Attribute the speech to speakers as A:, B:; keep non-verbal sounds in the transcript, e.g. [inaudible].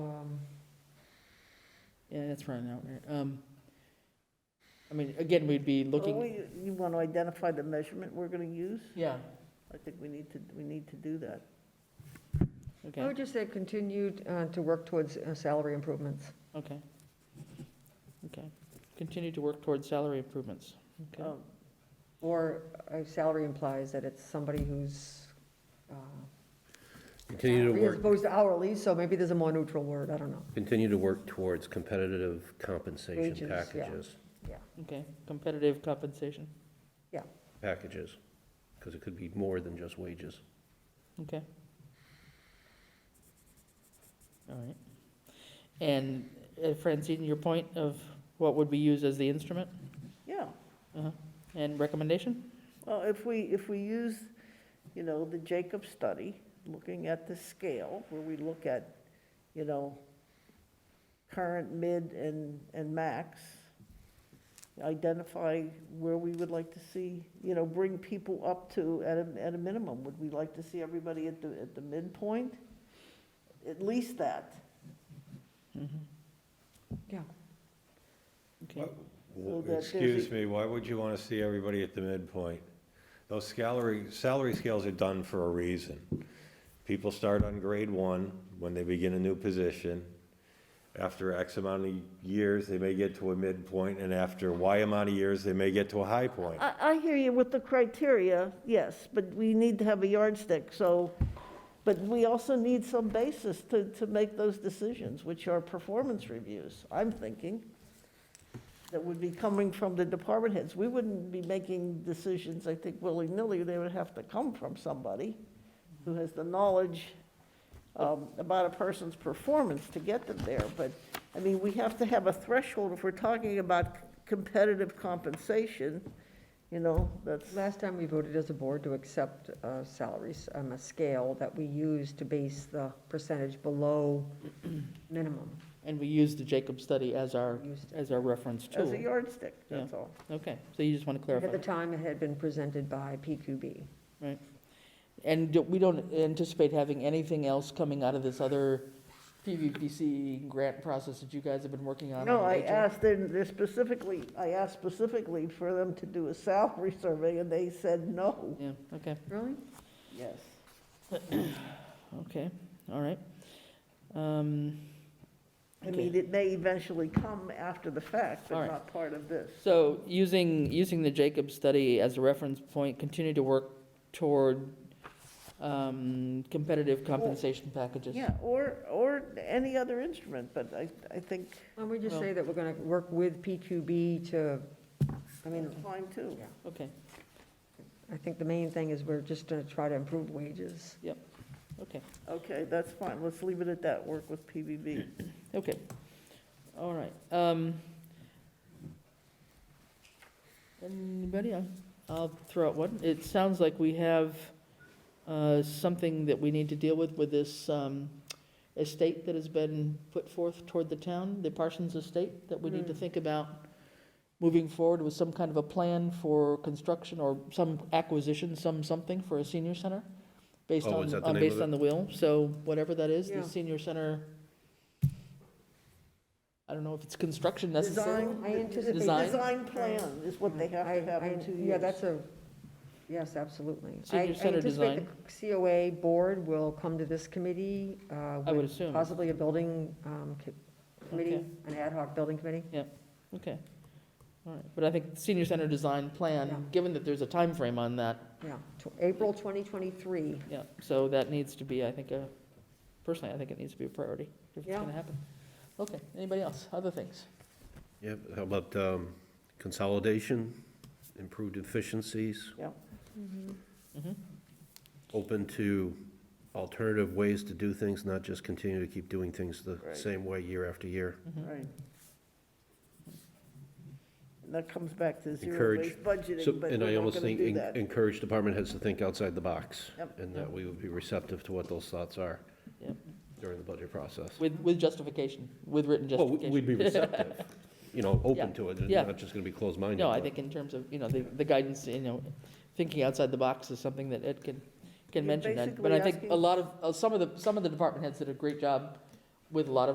A: that's running out here. Um, I mean, again, we'd be
B: Well,
A: looking,
B: Oh, you- You want to identify the measurement we're going to use?
A: yeah,
B: I think we need to, we need to do that.
C: I
A: okay,
C: would just say continued uh, to work towards uh, salary improvements.
A: okay. Okay, continue to work towards salary improvements. Okay.
B: Um,
C: Or uh, salary implies that it's somebody who's, uh,
D: Continue to
C: as
D: work,
C: opposed to hourly, so maybe there's a more neutral word, I don't know.
D: continue to work towards competitive
C: Wages,
D: compensation
C: yeah.
D: packages,
A: Okay, competitive compensation,
D: packages, because it could be more than just wages.
A: okay. All right. And uh, Francine, your point of what would we use as the instrument Uh-huh.
B: Yeah,
A: and recommendation?
B: well, if we, if we use, you know, the Jacob study, looking at the scale, where we look at, you know, current, mid, and, and max, identify where we would like to see, you know, bring people up to at a, at a minimum. Would we like to see everybody at the, at the midpoint? At least that. Mm-hmm.
A: Mhm,
C: Yeah.
A: Okay.
E: What-
B: So that there's
E: Excuse
B: a-
E: me, why would you want to see everybody at the midpoint? Those salary, salary scales are done for a reason. People start on grade one when they begin a new position. After X amount of years, they may get to a midpoint, and after Y amount of years, they may get to a high point.
B: I, I hear you with the criteria, yes, but we need to have a yardstick, so, but we also need some basis to, to make those decisions, which are performance reviews, I'm thinking, that would be coming from the department heads. We wouldn't be making decisions, I think, willy-nilly, they would have to come from somebody who has the knowledge um, about a person's performance to get them there, but, I mean, we have to have a threshold if we're talking about competitive compensation, you know, that's,
C: Last time we voted as a board to accept uh, salaries, um, a scale that we use to base the percentage below [clears throat] minimum.
A: And we use the Jacob study as our,
C: Used it.
A: as our reference tool.
B: as a yardstick, that's all.
A: Okay, so you just want to
C: At
A: clarify.
C: the time, it had been presented by PQB.
A: And do- we don't anticipate having anything else coming out of this other PVPC grant process that you guys have been working on?
B: No,
A: on
B: I
A: HL?
B: asked, them- they're specifically, I asked specifically for them to do a salary survey, and they said no.
A: Yeah, okay,
C: Really?
B: Yes.
A: okay, all right. Um,
B: I mean,
A: Okay.
B: it may eventually come after the fact,
A: All
B: but
A: right.
B: not part of this.
A: So using, using the Jacob study as a reference point, continue to work toward um, competitive compensation packages.
B: Yeah, or, or any other instrument, but I, I think
C: Why don't we just
A: Well-
C: say that we're going to work with PQB to, I mean,
B: it's fine, too.
A: Okay,
C: I think the main thing is we're just going to try to improve wages.
A: okay.
B: Okay, that's fine, let's leave it at that, work with PBB.
A: Okay, all right. um, Anybody? I'll- I'll throw out one. It sounds like we have uh, something that we need to deal with, with this um, estate that has been put forth toward the town, the Parsons Estate, that we need to
C: Hmm.
A: think about moving forward with some kind of a plan for construction or some acquisition, some something for a senior center, based
D: Oh,
A: on,
D: is that the
A: on-
D: name
A: based
D: of it?
A: on the will. So whatever that is,
C: Yeah.
A: the senior center. I don't know if it's construction necessary.
B: Design.
C: I anticipate.
A: Design?
B: Design plan is what they have to have
C: I- I-
B: in two years.
C: Yeah, that's a, yes, absolutely. I-
A: Senior center
C: I
A: design.
C: anticipate the COA board will come to this committee uh,
A: I would
C: with
A: assume,
C: possibly a building um, co- committee, an ad hoc building committee.
A: okay. All right, but I think senior center design
C: Yeah.
A: plan, given that there's a time frame on that,
C: Yeah, tw- April 2023.
A: yeah, so that needs to be, I think, a, personally, I think it needs to be a priority if it's
C: Yeah.
A: gonna happen. Okay, anybody else, other things?
D: Yep, how about um, consolidation, improved efficiencies,
B: Mm-hmm.
D: Mm-hmm.
A: Mhm.
D: open to alternative ways to do things, not just continue to keep doing things the
B: Right.
D: same way year after year.
B: Right. And that comes back to zero
D: Encourage-
B: based
D: So,
B: budgeting, but
D: and I
B: we're not
D: almost
B: gonna
D: think
B: do
D: en-
B: that.
D: encourage department heads to think outside the box,
B: Yep.
D: and that we would be receptive to what those thoughts are
A: Yep.
D: during the budget process.
A: With, with justification, with written
D: Well, we-
A: justification.
D: we'd be
A: [laughs]
D: receptive, you know,
A: Yeah,
D: open to it, and
A: yeah.
D: not just gonna be closed-minded.
A: No, I
D: but-
A: think in terms of, you know, the, the guidance, you know, thinking outside the box is something that Ed can, can
B: You're
A: mention. and- But
B: basically
A: I think a
B: asking-
A: lot of, uh, some of the, some of the department heads did a great job with a lot of.